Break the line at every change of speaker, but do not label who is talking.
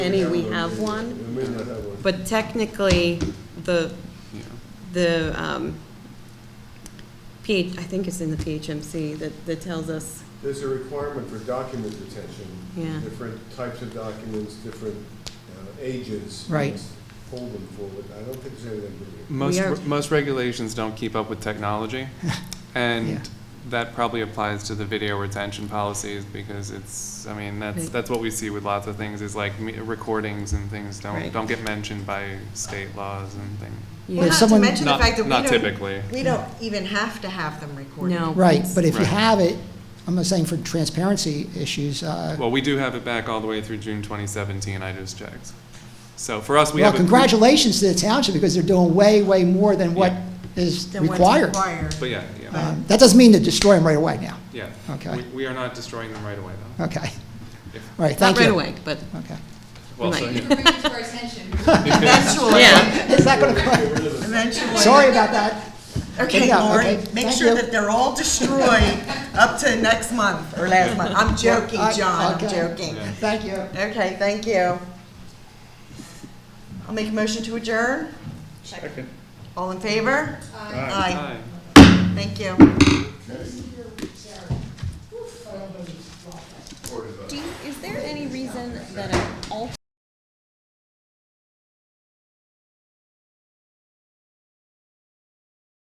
any, we have one,
We may not have one.
but technically, the, the, um, P, I think it's in the PHMC that, that tells us,
There's a requirement for document retention.
Yeah.
Different types of documents, different uh, ages. you
Right.
must Hold them forward. I don't think there's anything really.
We are-
Most, most regulations don't keep up with technology,
Yeah.
and that probably applies to the video retention policies, because it's, I mean, that's,
Right.
that's what we see with lots of things, is like me- recordings and things
Right.
don't, don't get mentioned by state laws and things.
Well,
If
not
yeah,
to
someone-
mention the
Not-
fact that we
not
don't.
typically.
We don't even have to have them recorded.
no.
Right, but if you
Right.
have it, I'm not saying for transparency issues, uh,
Well, we do have it back all the way through June twenty seventeen, I just checked. So for us, we
well,
have. a-
congratulations to the township because they're doing way, way more than what
Yeah.
is
Then what's
required.
required.
But yeah, yeah,
Um, That doesn't mean to destroy them right away now.
yeah.
Okay. Uh,
We, we are not destroying them right away, though.
Okay.
If-
All
not
right, thank you.
right away, but
Okay.
Well, so,
Right.
yeah.
Bring it to our attention.
Eventually,
Yeah.
It's not going to,
eventually.
sorry about that.
Okay,
Yeah,
Lori,
okay.
make
Thank
sure
you.
that they're all destroyed up to next month or last month. I'm joking,
I-
John, I'm
okay.
joking.
Yeah.
Thank you.
Okay, thank you. I'll make a motion to adjourn.
Second.
All in favor? Aye.
Hi.
Thank you.
do you, is there any reason that an alternate